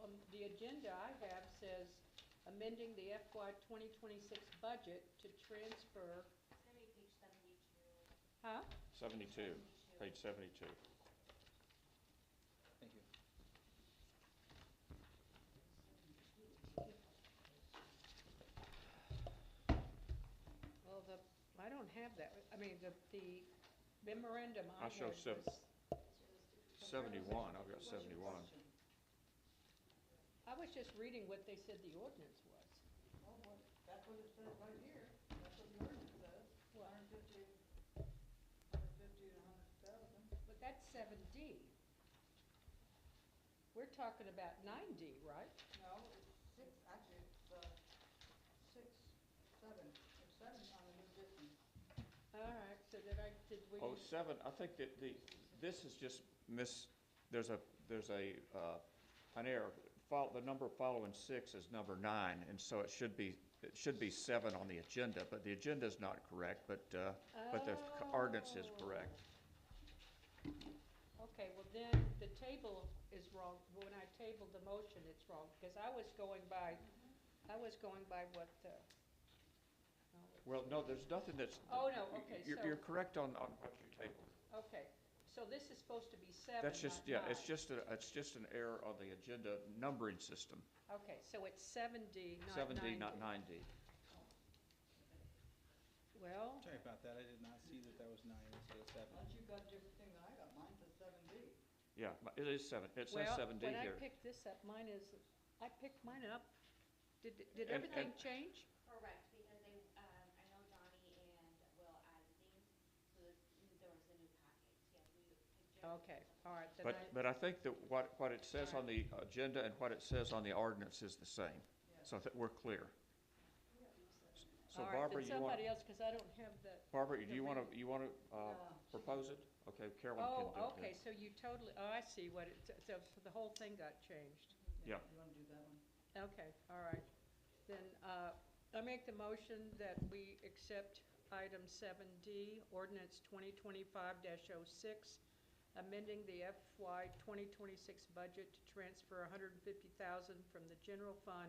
um, the agenda I have says amending the FY twenty twenty-six budget to transfer, It's gonna be page seventy-two. huh? Seventy-two, page seventy-two. Thank you. Well, the, I don't have that, I mean, the, the memorandum I I show had seven. was- Seventy-one, I've got seventy-one. I was just reading what they said the ordinance was. Oh, well, that's what it says right here, that's what the ordinance says, What? hundred fifty, hundred fifty to hundred thousand. But that's seven D. We're talking about nine D, right? No, it's six, actually, it's, uh, six, seven, it's seven on the new business. All right, so did I, did we? Oh, seven, I think that the, this is just miss, there's a, there's a, uh, an error. Fol, the number following six is number nine, and so it should be, it should be seven on the agenda, but the agenda's not correct, but, uh, but the c- ordinance is Oh. correct. Okay, well then, the table is wrong, when I tabled the motion, it's wrong, because I was going by, Mm-hmm. I was going by what, uh, Well, no, there's nothing that's. Oh, no, okay, You're, so- you're correct on, on what you tabled. okay, so this is supposed to be seven, That's just, not yeah, it's nine. just, a it's just an error on the agenda numbering system. Okay, so it's seven D, not nine D. Seven D, not nine D. Well, Sorry about that, I did not see that that was nine instead of seven. Unless you've got different thing than I got, mine says seven D. Yeah, but it is seven, it says well, seven D when I here. picked this up, mine is, I picked mine up, did, did And- everything and- change? Correct, because they, um, I know Donnie and Will added these, so that there was a new package, yeah, we. Okay, all right, then But, I, but I think that what, what it says on the agenda and what it says on the ordinance is the same, so that we're clear. So all right, then Barbara, you want, somebody else, because I don't have the, Barbara, do the you re- want to, you want to, uh, No. propose it? Okay, Carolyn can do oh, it. then. okay, so you totally, oh, I see what it, so so the whole thing got changed. Yeah. You wanna do that one? Okay, all right. Then uh, I make the motion that we accept item 7D, ordinance 2025-06, amending the FY 2026 budget to transfer 150000 from the general fund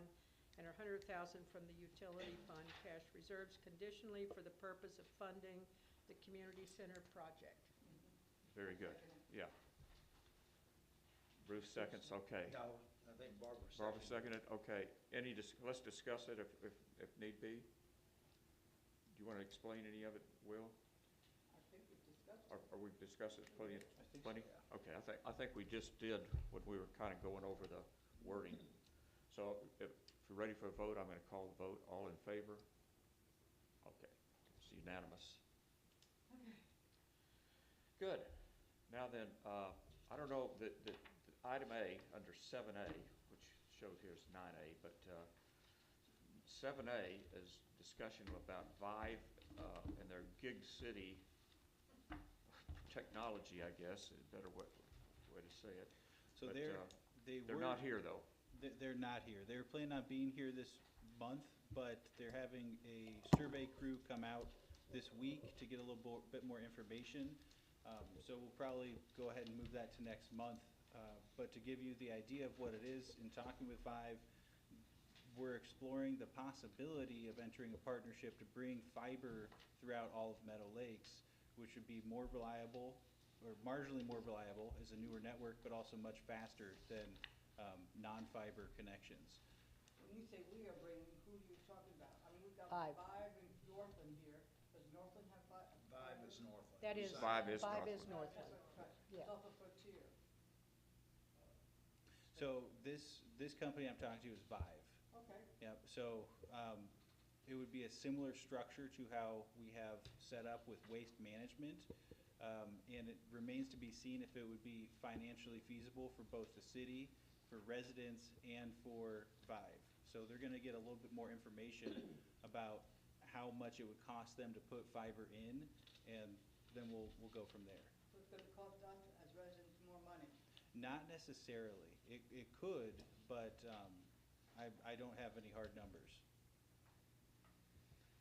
and 100000 from the utility fund cash reserves conditionally for the purpose of funding the community center project. Very good, yeah. Bruce seconds, okay. No, I think Barbara seconded. Barbara seconded, okay. Any, dis- let's discuss it if, if, if need be. Do you want to explain any of it, Will? I think we've discussed Or, it. or we've discussed it plenty, I think so, plenty? yeah. Okay, I think, I think we just did when we were kind of going over the wording. So if, if you're ready for a vote, I'm going to call the vote. All in favor? Okay, it's unanimous. Good. Now then, uh, I don't know, the, the, the item A, under seven A, which shows here is nine A, but, uh, seven A is discussion about Vive, uh, and their Gig City technology, I guess, is a better way, way to say it. So But, they're, uh, they were. They're not here, though. They- They're not here. They were planning on being here this month, but they're having a survey crew come out this week to get a little bo- bit more information. Um, So we'll probably go ahead and move that to next month. Uh, But to give you the idea of what it is, in talking with Vive, we're exploring the possibility of entering a partnership to bring fiber throughout all of Meadow Lakes, which would be more reliable, or marginally more reliable as a newer network, but also much faster than um, non-fiber connections. When you say we are bringing, who are you talking about? I mean, we've got Five. five in Northland here, does Northland have five? Vibe is Northland. That You is, seconded. Five is five Northland. is Northland. Yeah. It's off a frontier. So this, this company I'm talking to is Vive. Okay, Yep, so, um, it would be a similar structure to how we have set up with waste management. Um, and it remains to be seen if it would be financially feasible for both the city, for residents, and for Vive. So they're gonna get a little bit more information about how much it would cost them to put fiber in, and then we'll, we'll go from there. so it's gonna cost us as residents more money. Not necessarily. It, it could, but, um, I, I don't have any hard numbers.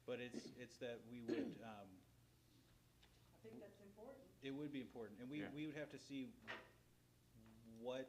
But it's, it's that we would, um, I think that's important. it would be important, and we, Yeah. we would have to see what